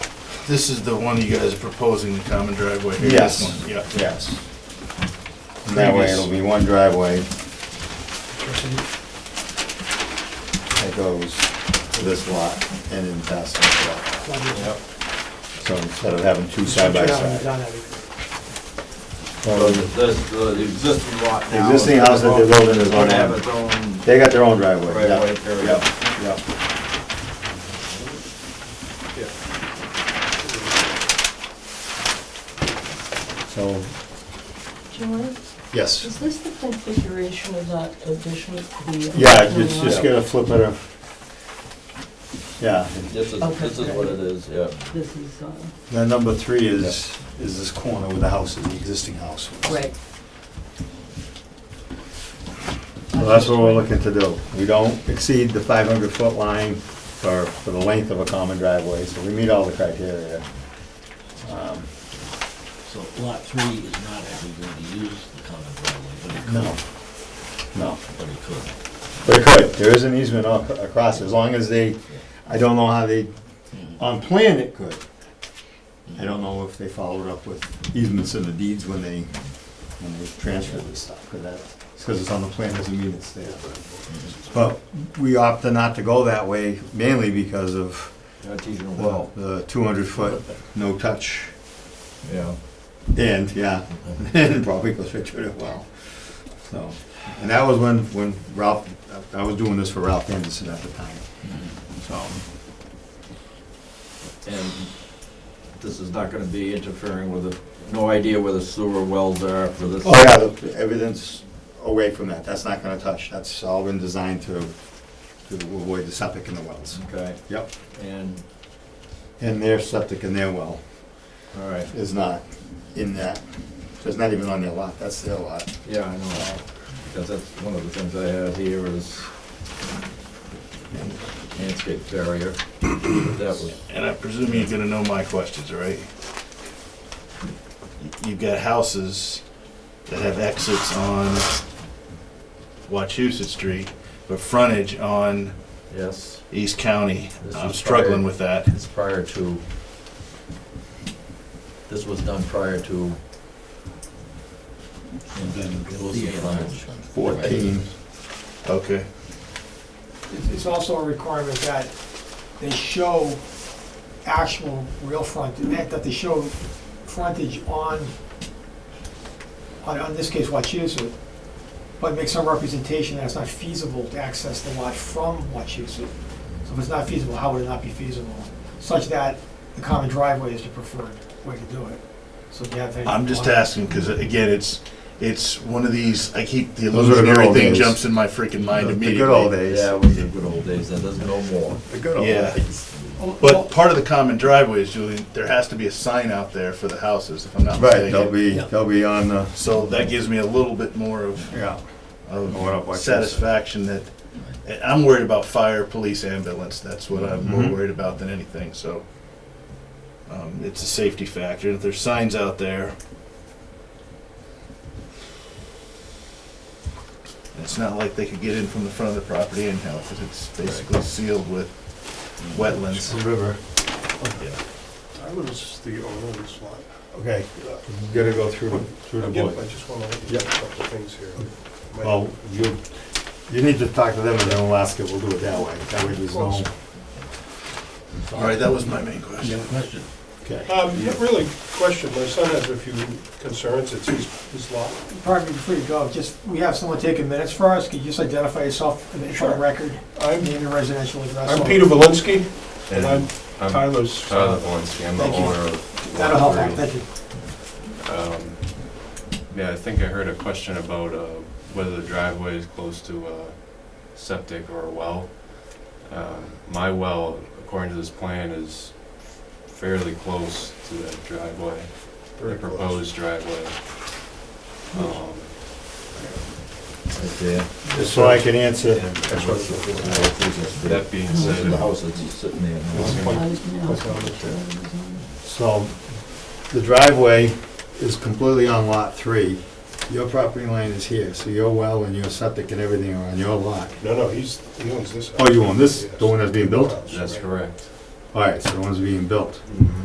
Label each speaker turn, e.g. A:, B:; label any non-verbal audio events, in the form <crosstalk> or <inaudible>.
A: This is the one you guys are proposing, the common driveway here?
B: Yes.
A: This one, Yeah.
B: Yes. And That way it'll be one driveway that goes to this lot and then past this lot. So instead of having two side by side.
C: So
B: Well,
C: the- This, the existing lot
B: The
C: now.
B: existing
C: is-
B: house that they're building is on
C: Gonna have
B: that.
C: its own
B: They got their own driveway.
C: Oh, right
B: yeah.
C: away area.
B: Yep, yep. So,
D: John,
B: yes.
D: is this the configuration of that addition? the-
B: Yeah, it's just gonna flip it up. Yeah,
C: This is,
D: Okay.
C: this is what it is, yeah.
D: This is, uh,
B: Now, number three is, is this corner where the house is, the existing house. was.
D: right.
B: So that's what we're looking to do. We don't exceed the five hundred foot line for, for the length of a common driveway, so we meet all the criteria. Um,
E: So lot three is not actually going to use the common driveway, but it
B: No,
E: could,
B: no.
E: but it could.
B: But it could, there is an easement ac- across, as long as they, I don't know how they, on plan it could. I don't know if they followed up with easements in the deeds when they, when they transferred this stuff, because that, because it's on the plan doesn't mean it's there. But we opted not to go that way mainly because of,
C: Artesian
B: well,
C: well,
B: the two hundred foot no touch.
C: yeah.
B: And, yeah, <laughs> and probably goes right through the well. So, and that was when, when Ralph, I was doing this for Ralph Anderson at the time, so.
C: And this is not gonna be interfering with the, no idea where the sewer wells are for this.
B: Oh, yeah, the- everything's away from that, that's not gonna touch, that's all been designed to, to avoid the septic in the wells.
C: Okay,
B: Yep,
C: and,
B: and their septic in their well
C: all right,
B: is not in that, so it's not even on their lot, that's their lot.
C: yeah, I know. Because that's one of the things I have here is landscape barrier. That was,
A: And I presume you're gonna know my questions, right? You've got houses that have exits on Wachusett Street, but frontage on
C: yes,
A: East County.
C: This
A: I'm
C: is
A: struggling
C: prior-
A: with that.
C: it's prior to, this was done prior to
E: And then
C: Wilson Farms.
B: Fourteen.
A: Okay.
F: It's- It's also a requirement that they show actual real front, that that they show frontage on, on, on this case, Wachusett, but make some representation that it's not feasible to access the lot from Wachusett. So if it's not feasible, how would it not be feasible? Such that the common driveway is the preferred way to do it. So if you have any-
A: I'm just asking, because again, it's, it's one of these, I keep, the
B: Those are the good
A: illusionary
B: old
A: thing
B: days.
A: jumps in my freaking mind
B: The
A: immediately.
B: good old days.
C: Yeah, it was the good old days, and there's no more.
B: The good old
A: Yeah.
B: days.
F: Oh, oh,
A: But part of the common driveway is, Julian, there has to be a sign out there for the houses, if I'm not
B: Right,
A: mistaken.
B: they'll be, they'll be on the,
A: So that gives me a little bit more of,
B: yeah. Going up
A: of
B: like this.
A: satisfaction that, and I'm worried about fire, police, ambulance, that's what I'm more
B: Mhm.
A: worried about than anything, so. Um, it's a safety factor, if there's signs out there. It's not like they could get in from the front of the property anyhow, because it's basically sealed with wetlands.
B: river.
G: I was the owner of this lot.
B: Okay, gotta go through, through the
G: Again,
B: board.
G: I just want to let you know
B: Yep.
G: a couple of things here. My-
B: Well, you, you need to talk to them and then we'll ask it, we'll do it that way, that way there's no.
A: Alright, that was my main question.
E: You have a question?
B: Okay.
G: Um, not really question, my son has a few concerns, it's his, his lot.
F: Pardon me, before you go, just, we have someone taking minutes for us, could you just identify yourself for the- for the
G: Sure.
F: record?
G: I'm,
F: Name your residential address.
G: I'm Peter Valinsky, and I'm
H: I'm
G: Tyler's.
H: Tyler Valencia, I'm the
F: Thank you.
H: owner of.
F: That'll help,
H: Lot
F: out,
H: Three.
F: thank you.
H: Um, Yeah, I think I heard a question about uh, whether the driveway is close to a septic or a well. Um, My well, according to this plan, is fairly close to that driveway, the
G: Very close.
H: proposed driveway. Um,
C: Right there.
B: Just so I can answer.
G: That's what it's-
H: That being
C: This is the
H: said,
C: house that's sitting there.
H: it's gonna
D: I was gonna-
G: That's on the chair.
B: So, the driveway is completely on lot three. Your property line is here, so your well and your septic and everything are on your lot.
G: No, no, he's, he owns this.
B: Oh, you own this, the
G: Yes.
B: one that's being built?
G: House,
H: that's
G: right.
H: correct.
B: All right, so the one's being built.